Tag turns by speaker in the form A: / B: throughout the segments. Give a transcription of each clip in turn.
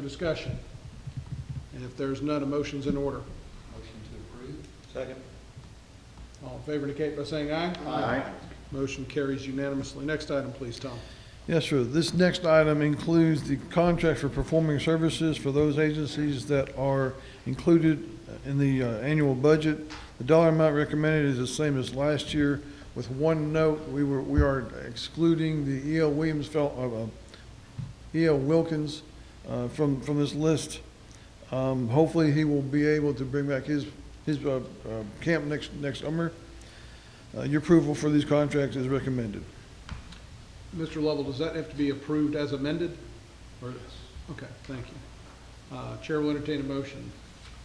A: for discussion? And if there's none, a motion's in order.
B: Motion to approve?
C: Second.
A: All in favor indicate by saying aye.
C: Aye.
A: Motion carries unanimously. Next item, please, Tom.
D: Yes, sir. This next item includes the contract for performing services for those agencies that are included in the uh, annual budget. The dollar amount recommended is the same as last year, with one note, we were, we are excluding the E.L. Williams, fel- uh, uh, E.L. Wilkins uh, from, from this list. Um, Hopefully, he will be able to bring back his, his uh, uh, camp next, next summer. Uh, Your approval for these contracts is recommended.
A: Mr. Lovell, does that have to be approved as amended? Or, okay, thank you. Uh, Chair will entertain a motion.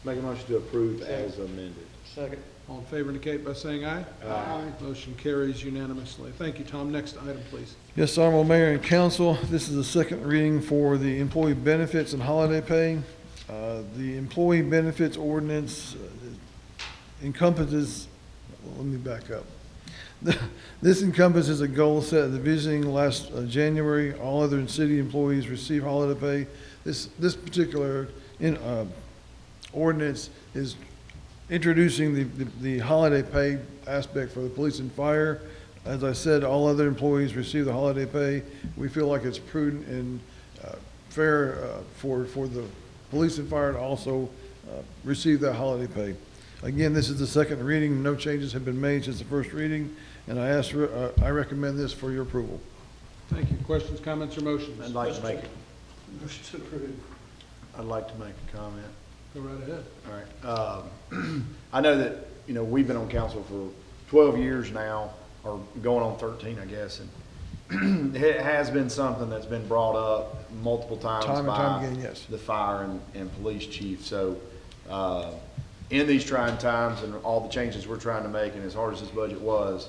C: Make a motion to approve as amended.
B: Second.
A: All in favor indicate by saying aye.
C: Aye.
A: Motion carries unanimously. Thank you, Tom. Next item, please.
D: Yes, Honorable Mayor and Council, this is the second reading for the employee benefits and holiday pay. Uh, The employee benefits ordinance uh, encompasses, well, let me back up. This encompasses a goal set at the visiting last uh, January. All other city employees receive holiday pay. This, this particular in- uh, ordinance is introducing the, the- the holiday pay aspect for the police and fire. As I said, all other employees receive the holiday pay. We feel like it's prudent and uh, fair uh, for, for the police and fire to also uh, receive that holiday pay. Again, this is the second reading. No changes have been made since the first reading, and I ask, for- uh, I recommend this for your approval.
A: Thank you. Questions, comments, or
C: I'd
A: motions? Go
C: like to make,
B: Motion to approve.
C: I'd like to make a comment.
A: right ahead.
C: All right. Um, I know that, you know, we've been on council for 12 years now, or going on 13, I guess. And it has been something that's been brought up multiple times
D: Time and
C: by
D: time again, yes.
C: the fire and, and police chief. So uh, in these trying times and all the changes we're trying to make, and as hard as this budget was,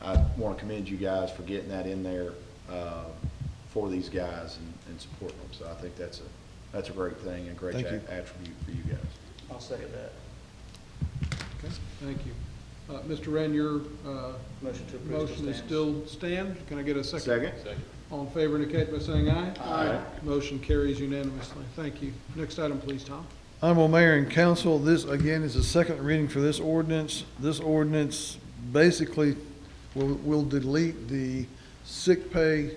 C: I want to commend you guys for getting that in there uh, for these guys and, and supporting them. So I think that's a, that's a great thing and a great
D: Thank
C: a-
D: you.
C: attribute for you guys.
B: I'll second that.
A: Okay, thank you. Uh, Mr. Wren, your uh,
B: Motion to approve.
A: motion is still stand. Can I get a second?
C: Second?
A: All in favor indicate by saying aye.
C: Aye.
A: Motion carries unanimously. Thank you. Next item, please, Tom.
D: Honorable Mayor and Council, this again is the second reading for this ordinance. This ordinance basically will, will delete the sick pay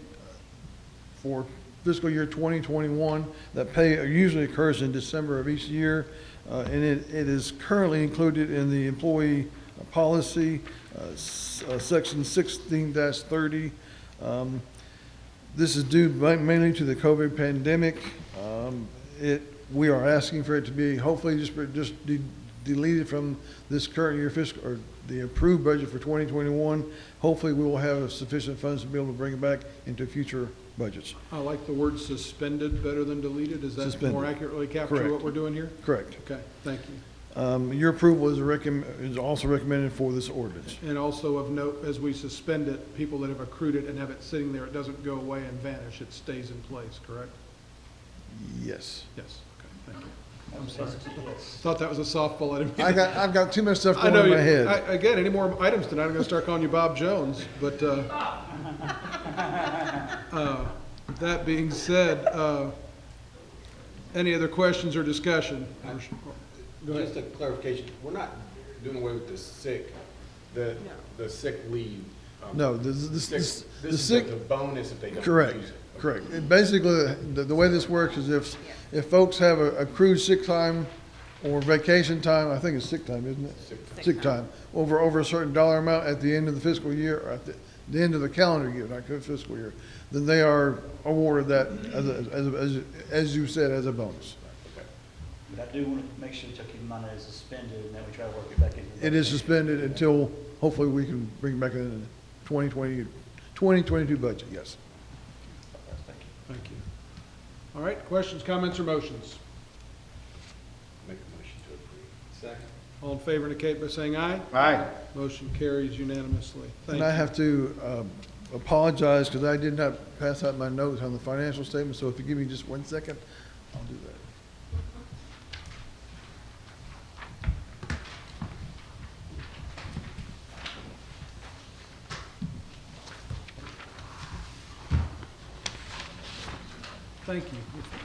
D: for fiscal year 2021. That pay usually occurs in December of each year, uh, and it, it is currently included in the employee policy, uh, s- uh, section 16-30. Um, this is due ma- mainly to the COVID pandemic. Um, It, we are asking for it to be hopefully just, just de- deleted from this current year fiscal, or the approved budget for 2021. Hopefully, we will have sufficient funds to be able to bring it back into future budgets.
A: I like the word suspended better than deleted. Does that more
D: Suspended.
A: accurately capture what
D: Correct.
A: we're doing here?
D: Correct.
A: Okay, thank you.
D: Um, Your approval is recomm, is also recommended for this ordinance.
A: And also of note, as we suspend it, people that have accrued it and have it sitting there, it doesn't go away and vanish. It stays in place, correct?
D: Yes.
A: Yes, okay, thank you.
B: I'm sorry.
A: Thought that was a softball. I didn't mean
D: I got, I've got too much stuff
A: I
D: going
A: know.
D: on in
A: You,
D: my head.
A: I, again, any more items tonight, I'm going to start calling you Bob Jones. But uh, uh, that being said, uh, any other questions or discussion? Go ahead.
E: Just a clarification, we're not doing away with the sick, the, the sick leave. um,
D: No, the, the,
E: sick- This
D: the- the
E: is
D: sick.
E: the bonus if they don't use it.
D: Correct, correct. And Basically, the, the way this works is if, if folks have a accrued sick time or vacation time, I think it's sick time, isn't it?
E: Sick
D: Sick time, over, over a certain dollar amount at the end of the fiscal year, or at the, the end of the calendar year, not fiscal year, then they are awarded that as, a- as, a- as, a- as you said, as a bonus.
F: But I do want to make sure Kentucky money is suspended and that we try to work it back into. the
D: It is suspended until hopefully we can bring it back in the 2020 2022 budget, yes.
F: Thank you.
A: Thank you. All right. Questions, comments, or motions?
E: Make a motion to approve.
B: Second.
A: All in favor indicate by saying aye.
C: Aye.
A: Motion carries unanimously. Thank
D: And I
A: you.
D: have to um, apologize because I did not pass out my notes on the financial statement, so if you give me just one second, I'll do that.
A: Thank you.